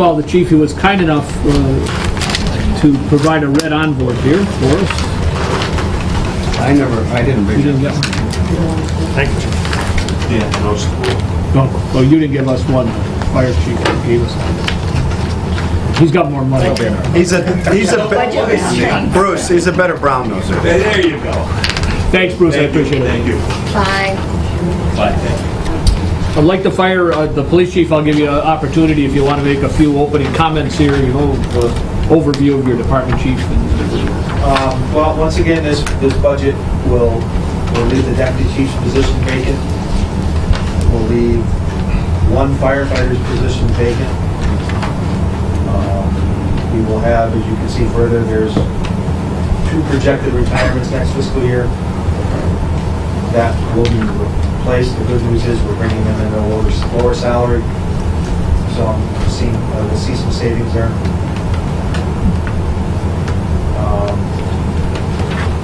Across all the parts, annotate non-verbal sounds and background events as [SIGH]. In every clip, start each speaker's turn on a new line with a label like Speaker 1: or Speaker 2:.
Speaker 1: Well, the chief, he was kind enough uh, to provide a red onboard beer for us.
Speaker 2: I never, I didn't
Speaker 1: You
Speaker 2: bring it.
Speaker 1: didn't get one?
Speaker 3: Thank you. Yeah, no school.
Speaker 1: No, oh, you didn't give us one. Fire chief gave us one. He's got more money.
Speaker 2: He's a, he's a,
Speaker 4: budget
Speaker 2: be-
Speaker 4: round.
Speaker 2: Bruce, he's a better brown noser.
Speaker 3: There you go.
Speaker 1: Thanks, Bruce, I appreciate
Speaker 3: Thank
Speaker 1: it.
Speaker 3: you.
Speaker 4: Bye.
Speaker 3: Bye, thank you.
Speaker 1: I'd like to fire, uh, the police chief, I'll give you an opportunity if you want to make a few opening comments here, you know, uh, overview of your department, chief. and-
Speaker 5: Um, Well, once again, this, this budget will, will leave the deputy chief's position vacant, will leave one firefighter's position vacant. Um, We will have, as you can see further, there's two projected retirements next fiscal year that will be replaced. The good news is we're bringing them in at a lower, lower salary, so I'm seeing, uh, we'll see some savings there. Um,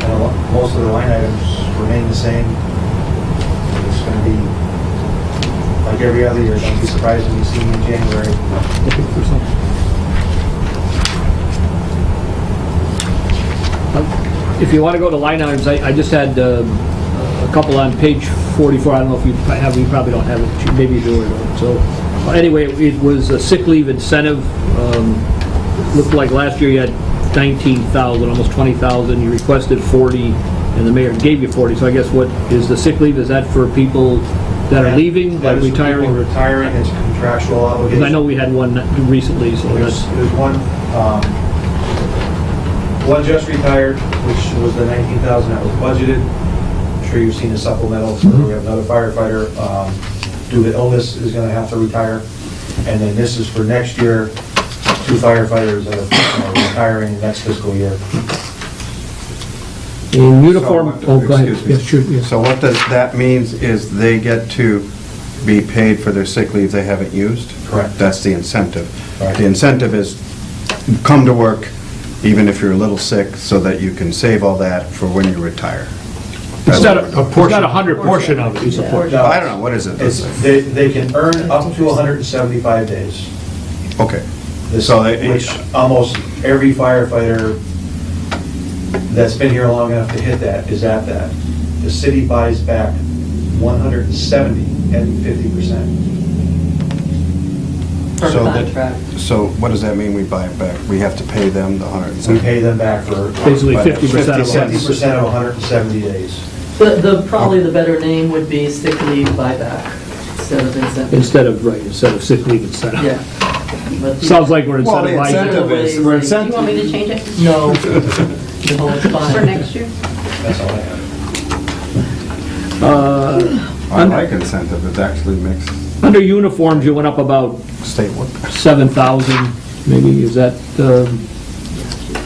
Speaker 5: and a lo- most of the line items remain the same. It's gonna be, like every other year, don't be surprised when you see me in January.
Speaker 1: Looking for something. If you want to go to line items, I I just had uh, a couple on page 44, I don't know if you have, you probably don't have it, maybe you do or don't, so. Anyway, it was a sick leave incentive, Um, looked like last year you had 19,000, almost 20,000, you requested 40, and the mayor gave you 40, so I guess what, is the sick leave, is that for people that are leaving,
Speaker 5: That
Speaker 1: like
Speaker 5: is for
Speaker 1: retiring?
Speaker 5: people Retiring, it's contractual obligation.
Speaker 1: Because I know we had one recently, so that's...
Speaker 5: There's, there's one, um, one just retired, which was the nineteen thousand that was budgeted. I'm sure you've seen the supplementals, where we
Speaker 2: Mm-hmm.
Speaker 5: have another firefighter, um, due to illness, is gonna have to retire. And then this is for next year, two firefighters that are retiring next fiscal year.
Speaker 1: In uniform,
Speaker 2: So,
Speaker 1: oh, go ahead.
Speaker 2: excuse me.
Speaker 1: Yes, sure, yes.
Speaker 2: So what does, that means is they get to be paid for their sick leave they haven't used?
Speaker 5: Correct.
Speaker 2: That's the incentive.
Speaker 5: Right.
Speaker 2: The incentive is come to work even if you're a little sick so that you can save all that for when you retire.
Speaker 1: It's not a, it's not a hundred portion of it. It's a portion.
Speaker 2: I don't know, what is it?
Speaker 5: It's, they, they can earn up to hundred and seventy-five days.
Speaker 2: Okay.
Speaker 5: This-
Speaker 2: So they-
Speaker 5: Which almost every firefighter that's been here long enough to hit that is at that. The city buys back 170 and 50%.
Speaker 4: Per
Speaker 2: So that-
Speaker 4: contract.
Speaker 2: So what does that mean we buy it back? We have to pay them the hundred and
Speaker 5: We
Speaker 2: seventy?
Speaker 5: pay them back for
Speaker 1: Basically
Speaker 2: But
Speaker 1: fifty percent of
Speaker 2: 50 cents.
Speaker 1: it.
Speaker 5: 50% of 170 days.
Speaker 6: The, the, probably the better name would be sick leave buyback instead of incentive.
Speaker 1: Instead of, right, instead of sick leave incentive.
Speaker 6: Yeah. But the-
Speaker 1: Sounds like we're
Speaker 2: Well, the
Speaker 1: incentivizing.
Speaker 2: incentive is, we're
Speaker 4: You
Speaker 2: incentive,
Speaker 4: want me to change it
Speaker 6: [LAUGHS] No. No, it's fine.
Speaker 4: for next year?
Speaker 5: That's all I have.
Speaker 2: I like incentive, it actually makes
Speaker 1: Under uniforms, you went up about
Speaker 2: state work.
Speaker 1: seven thousand, maybe, is that, um,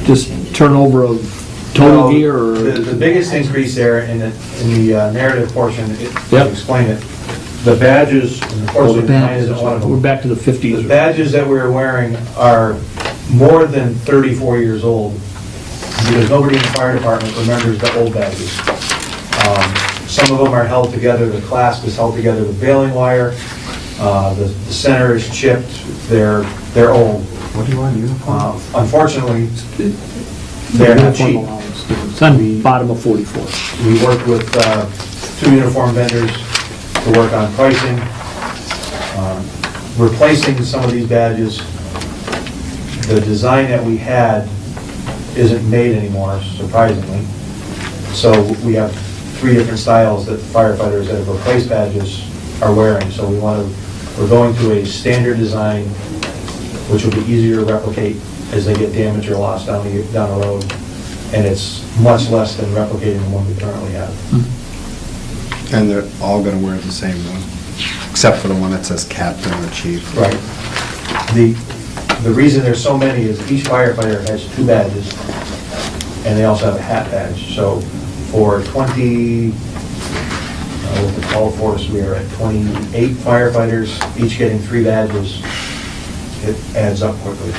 Speaker 1: just turnover of total
Speaker 5: Well,
Speaker 1: gear
Speaker 5: The the
Speaker 1: or?
Speaker 5: biggest increase there in the, in the uh, narrative portion, it-
Speaker 1: Yep.
Speaker 5: to explain it, the badges, and
Speaker 1: Oh,
Speaker 5: unfortunately,
Speaker 1: the
Speaker 5: mine isn't one of
Speaker 1: badges.
Speaker 5: them.
Speaker 1: We're back to the
Speaker 5: The
Speaker 1: fifties.
Speaker 5: badges that we're wearing are more than 34 years old, because nobody in the fire department remembers the old badges. Um, Some of them are held together, the clasp is held together with baling wire, uh, the the center is chipped, they're, they're old.
Speaker 2: What do you want, uniform?
Speaker 5: Uh, Unfortunately, they're not cheap.
Speaker 1: It's on the bottom of forty-four.
Speaker 5: We worked with uh, two uniform vendors to work on pricing, um, replacing some of these badges. The design that we had isn't made anymore, surprisingly. So we have three different styles that firefighters that have replaced badges are wearing. So we want to, we're going to a standard design, which will be easier to replicate as they get damaged or lost down the, down the road. And it's much less than replicating the one we currently have.
Speaker 2: And they're all gonna wear the same one, except for the one that says captain or chief.
Speaker 5: Right. The, the reason there's so many is each firefighter has two badges, and they also have a hat badge. So for 20, uh, with the call force, we are at 28 firefighters, each getting three badges. It adds up quickly.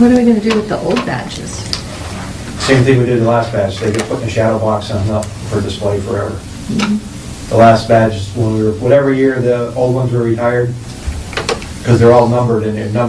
Speaker 4: What are we gonna do with the old badges?
Speaker 5: Same thing we did the last badge, they get put in a shadow box and hung up for display forever. The last badge, when we were, whatever year the old ones were retired, because they're all numbered and they're numbered